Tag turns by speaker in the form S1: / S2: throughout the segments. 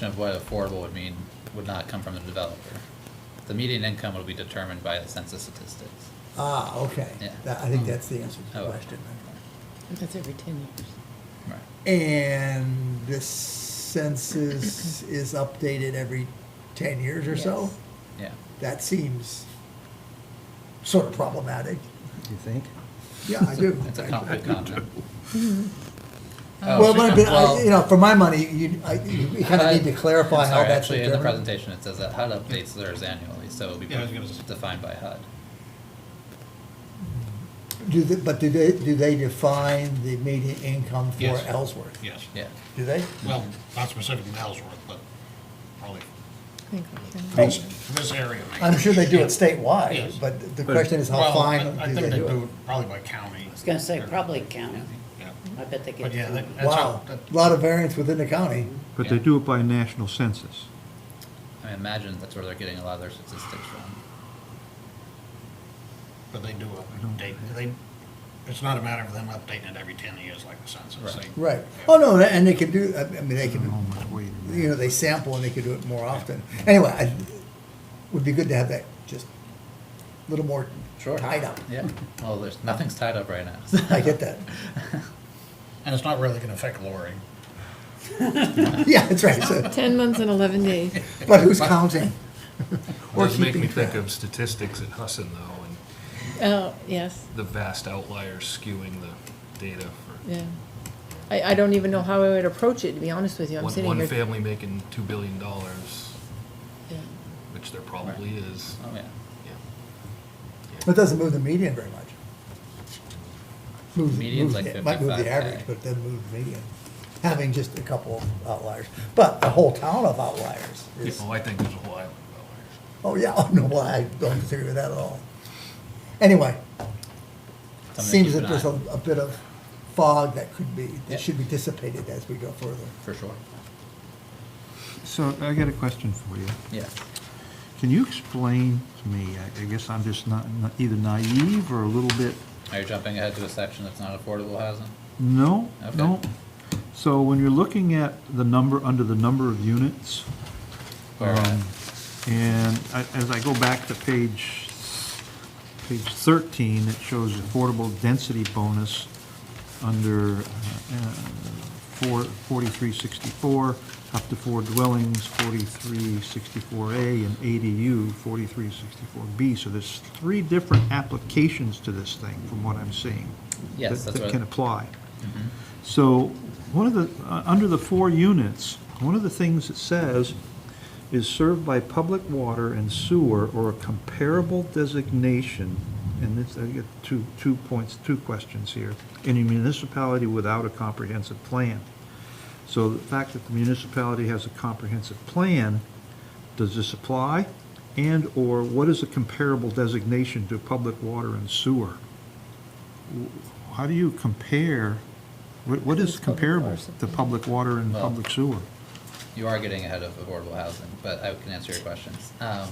S1: definition of what affordable would mean would not come from the developer. The median income will be determined by the census statistics.
S2: Ah, okay.
S1: Yeah.
S2: That- I think that's the answer to the
S1: Oh.
S2: question.
S3: That's every ten years.
S1: Right.
S2: And this census is updated every ten years or so?
S3: Yes.
S1: Yeah.
S2: That seems sort of problematic.
S4: You think?
S2: Yeah, I do.
S1: It's a complicated concept. Oh,
S2: Well, but, but,
S1: well,
S2: I- you know, for my money, you, I, you kind of
S1: HUD-
S2: need to clarify
S1: I'm
S2: how
S1: sorry,
S2: that's
S1: Actually, in the
S2: determined.
S1: presentation, it says that HUD updates theirs annually, so it'll be
S5: Yeah, I was gonna say.
S1: defined by HUD.
S2: Do they, but do they, do they define the median income for
S5: Yes.
S2: Ellsworth?
S5: Yes.
S1: Yeah.
S2: Do they?
S5: Well, not specifically in Ellsworth, but probably
S3: I think we can.
S2: Oh.
S5: this, this area. maybe.
S2: I'm sure they do it
S5: Yes.
S2: statewide, but the
S4: But-
S2: question is how
S5: Well, I-
S2: fine
S5: I
S2: do
S5: think
S2: they do it?
S5: Probably by county.
S6: I was gonna say, probably county.
S5: Yeah.
S6: I bet they
S5: But
S6: get.
S5: yeah,
S6: county.
S5: that- that's.
S2: Wow,
S5: how- that-
S2: a lot of variance within the county.
S4: But they
S5: Yeah.
S4: do it by national census.
S1: I imagine that's where they're getting a lot of their statistics from.
S5: But they do
S4: don't-
S5: update, they, it's not a matter of them updating it every ten years like the census.
S1: Right.
S5: They-
S2: Right.
S5: yeah.
S2: Oh, no, and they can do, I I mean, they can,
S4: How much weight it
S2: you know, they sample and they could do it more often. Anyway, I, would be good to have that just a little more tied up.
S1: Yeah. Well, there's, nothing's tied up right now. so.
S2: I get that.
S5: And it's not really gonna affect Lori.
S2: Yeah, that's right. So,
S3: Ten months and eleven days.
S2: but who's counting? Or
S7: Does make me
S2: keeping
S7: think
S2: track.
S7: of statistics at Husson though, and
S3: Oh, yes,
S7: the vast outliers skewing the data for
S3: yeah. I, I don't even know how I would approach it, to be honest with you. I'm
S7: one,
S3: sitting
S7: one
S3: here.
S7: family making two billion dollars,
S3: Yeah.
S7: which there probably is.
S1: Oh, yeah.
S7: Yeah.
S2: It doesn't move the median very much. Moves-
S1: Median's
S2: moves-
S1: like
S2: It might move the
S1: 55K.
S2: average, but it doesn't move the median. Having just a couple of outliers, but the whole town of outliers
S7: Yeah,
S2: is,
S7: Oh, I think there's a whole island of
S2: oh yeah, oh no, well, I don't disagree with that at all. Anyway,
S1: Something to
S2: seems
S1: keep
S2: that
S1: an
S2: there's
S1: eye
S2: a,
S1: on,
S2: a bit of fog that could be,
S1: Yeah.
S2: that should be dissipated as we go further.
S1: For sure.
S4: So I got a question for you.
S1: Yeah.
S4: Can you explain to me, I- I guess I'm just not, not- either naive or a little bit,
S1: Are you jumping ahead to a section that's not affordable housing?
S4: no,
S1: Okay.
S4: no. So when you're looking at the number, under the number of units,
S1: Where at?
S4: um, and I- as I go back to page, page 13, it shows affordable density bonus under uh, four- 4364, up to four dwellings, 4364A, and ADU, 4364B. So there's three different applications to this thing, from what I'm seeing.
S1: Yes, that's
S4: that-
S1: Mm-hmm.
S4: That
S1: what-
S4: can apply. So, one of the, uh, under the four units, one of the things it says is served by public water and sewer or a comparable designation, and this, I get two, two points, two questions here, in a municipality without a comprehensive plan. So the fact that the municipality has a comprehensive plan, does this apply? And/or what is a comparable designation to public water and sewer? Wh- How do you compare, what, what is
S3: It's public
S4: comparable
S3: water supply.
S4: to public water and
S1: Well-
S4: public sewer?
S1: You are getting ahead of affordable housing, but I can answer your questions. Um,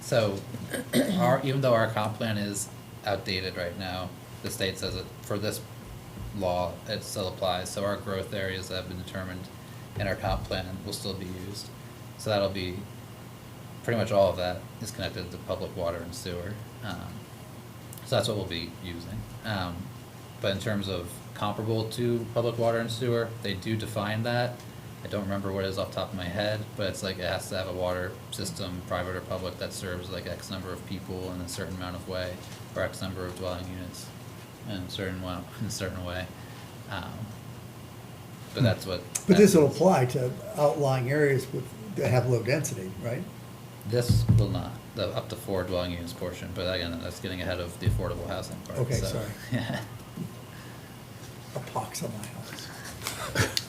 S1: so, our, even though our comp plan is outdated right now, the state says it, for this law, it still applies, so our growth areas that have been determined in our comp plan will still be used. So that'll be, pretty much all of that is connected to public water and sewer. Um, so that's what we'll be using. Um, but in terms of comparable to public water and sewer, they do define that. I don't remember what it is off the top of my head, but it's like it has to have a water system, private or public, that serves like X number of people in a certain amount of way, or X number of dwelling units in a certain way, in a certain way. Um, but that's what.
S2: But
S1: that
S2: this will
S1: means.
S2: apply to outlying areas with, that have low density, right?
S1: This will not, the up to four dwelling units portion, but again, that's getting ahead of the affordable housing part,
S2: Okay,
S1: so,
S2: sorry.
S1: Yeah.
S2: A pox on my house.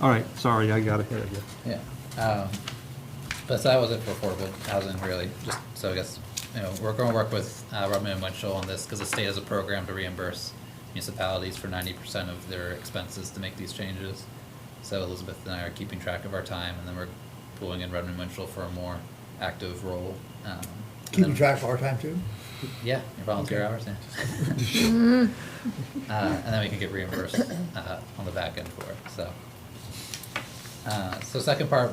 S4: All right, sorry, I got ahead of you.
S1: Yeah, um, but so that was it for affordable housing really, just, so I guess, you know, we're gonna work with, uh, Rubman and Winchell on this, cause the state has a program to reimburse municipalities for ninety percent of their expenses to make these changes. So Elizabeth and I are keeping track of our time, and then we're pulling in Rubman and Winchell for a more active role, um. and
S2: Keeping
S1: then-
S2: track of our time too?
S1: Yeah, your volunteer hours, yeah. Uh, and then we can get reimbursed, uh, on the back end for it, so. Uh, So second part